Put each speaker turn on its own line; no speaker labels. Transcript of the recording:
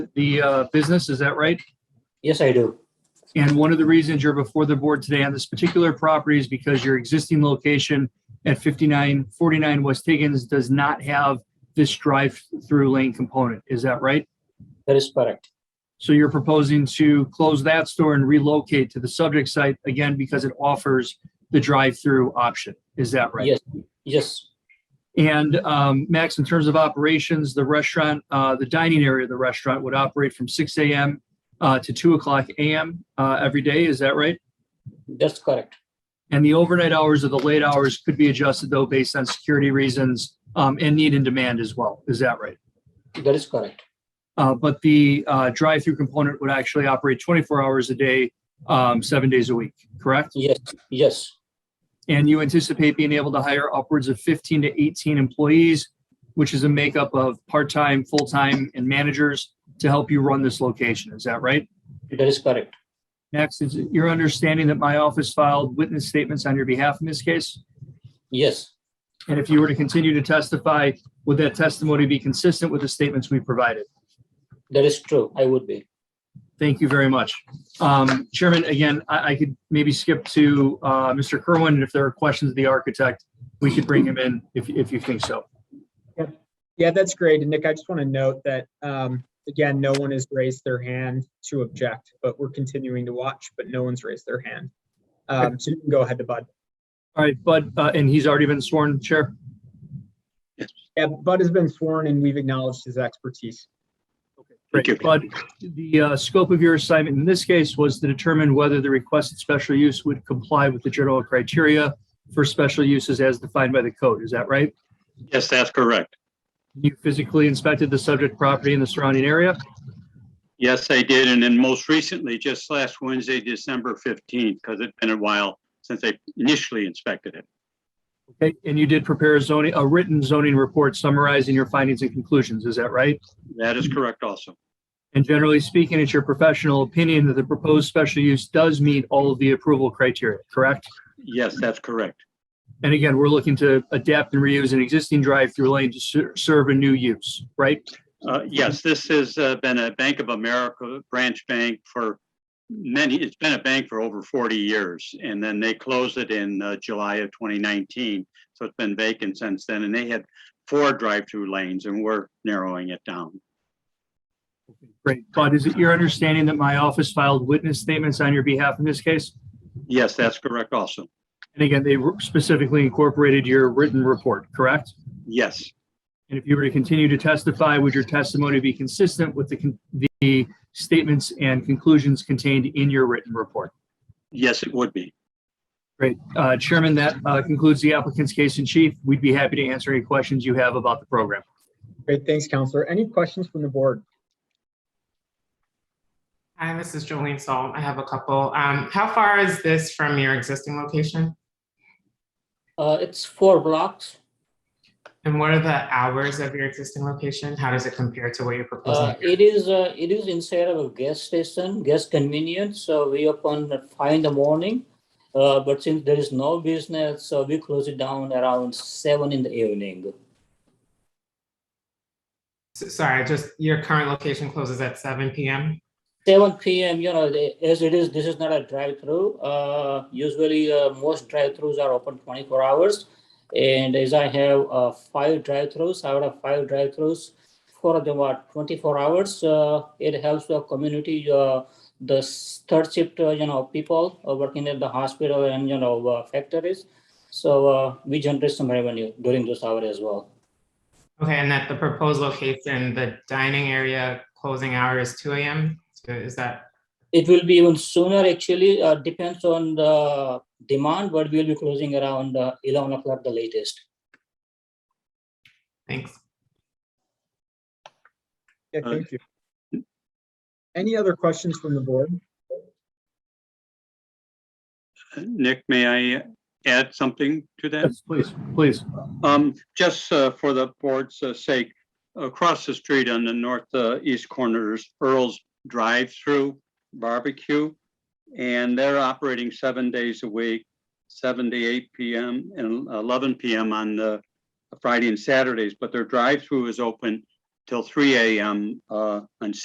the uh, business, is that right?
Yes, I do.
And one of the reasons you're before the board today on this particular property is because your existing location at 5949 West Higgins does not have this drive-through lane component. Is that right?
That is correct.
So you're proposing to close that store and relocate to the subject site again because it offers the drive-through option. Is that right?
Yes, yes,
And um, Max, in terms of operations, the restaurant, uh, the dining area of the restaurant would operate from 6 a.m. Uh, to 2 o'clock a.m. Uh, every day. Is that right?
that's correct.
And the overnight hours or the late hours could be adjusted though based on security reasons um, and need and demand as well. Is that right?
That is correct.
Uh, but the uh, drive-through component would actually operate 24 hours a day, um, seven days a week, correct?
Yes, yes,
And you anticipate being able to hire upwards of 15 to 18 employees, which is a makeup of part-time, full-time, and managers to help you run this location. Is that right?
that is correct.
Next, is it your understanding that my office filed witness statements on your behalf in this case?
Yes,
And if you were to continue to testify, would that testimony be consistent with the statements we provided?
that is true. I would be.
Thank you very much. Um, Chairman, again, I, I could maybe skip to, uh, Mr. Kerwin, and if there are questions of the architect, we could bring him in if, if you think so.
Yeah, that's great. And Nick, I just want to note that, um, again, no one has raised their hand to object, but we're continuing to watch, but no one's raised their hand. Um, so you can go ahead to Bud.
All right, Bud, uh, and he's already been sworn, Chair.
Yeah, Bud has been sworn and we've acknowledged his expertise.
Thank you.
Bud, the, uh, scope of your assignment in this case was to determine whether the requested special use would comply with the general criteria for special uses as defined by the code. Is that right?
Yes, that's correct.
You physically inspected the subject property and the surrounding area?
Yes, I did. And then most recently, just last Wednesday, December 15th, because it's been a while since I initially inspected it.
Okay, and you did prepare a zoning, a written zoning report summarizing your findings and conclusions, is that right?
That is correct also.
And generally speaking, it's your professional opinion that the proposed special use does meet all of the approval criteria, correct?
Yes, that's correct.
And again, we're looking to adapt and reuse an existing drive-through lane to ser- serve a new use, right?
Uh, Yes, this has uh, been a Bank of America branch bank for many, it's been a bank for over 40 years. And then they closed it in uh, July of 2019. So it's been vacant since then. And they had four drive-through lanes and we're narrowing it down.
Great. But is it your understanding that my office filed witness statements on your behalf in this case?
Yes, that's correct also.
And again, they specifically incorporated your written report, correct?
Yes.
And if you were to continue to testify, would your testimony be consistent with the, con- the statements and conclusions contained in your written report?
Yes, it would be.
Great. Uh, Chairman, that uh, concludes the applicant's case in chief. We'd be happy to answer any questions you have about the program.
Great, thanks, Counselor. Any questions from the board?
Hi, this is Jolene Sol. I have a couple. Um, how far is this from your existing location?
Uh, it's four blocks.
And what are the hours of your existing location? How does it compare to what you're
Uh,
proposing?
it is, uh, it is inside of a gas station, gas convenience. So we open at five in the morning. Uh, but since there is no business, so we close it down around seven in the evening.
S- Sorry, just your current location closes at seven PM?
Seven PM, you know, they- as it is, this is not a drive-through. Uh, usually, uh, most drive-throughs are open twenty-four hours. And as I have, uh, five drive-throughs, out of five drive-throughs, four of them are twenty-four hours. Uh, it helps the community, uh, the s- third shift, uh, you know, people uh, working at the hospital and, you know, uh, factories. So, uh, we generate some revenue during those hours as well.
Okay, and that the proposed location, the dining area closing hour is two AM? So Is that,
It will be even sooner, actually, uh, depends on the demand, but we'll be closing around uh, 11 o'clock, the latest.
thanks.
Yeah,
Uh,
thank you. Any other questions from the board?
Nick, may I add something to that?
Yes, please, please.
Um, just uh, for the board's uh, sake, across the street on the northeast corner is Earl's Drive-Through Barbecue. And they're operating seven days a week, seven to eight PM and eleven PM on the Friday and Saturdays, but their drive-through is open till three AM uh, on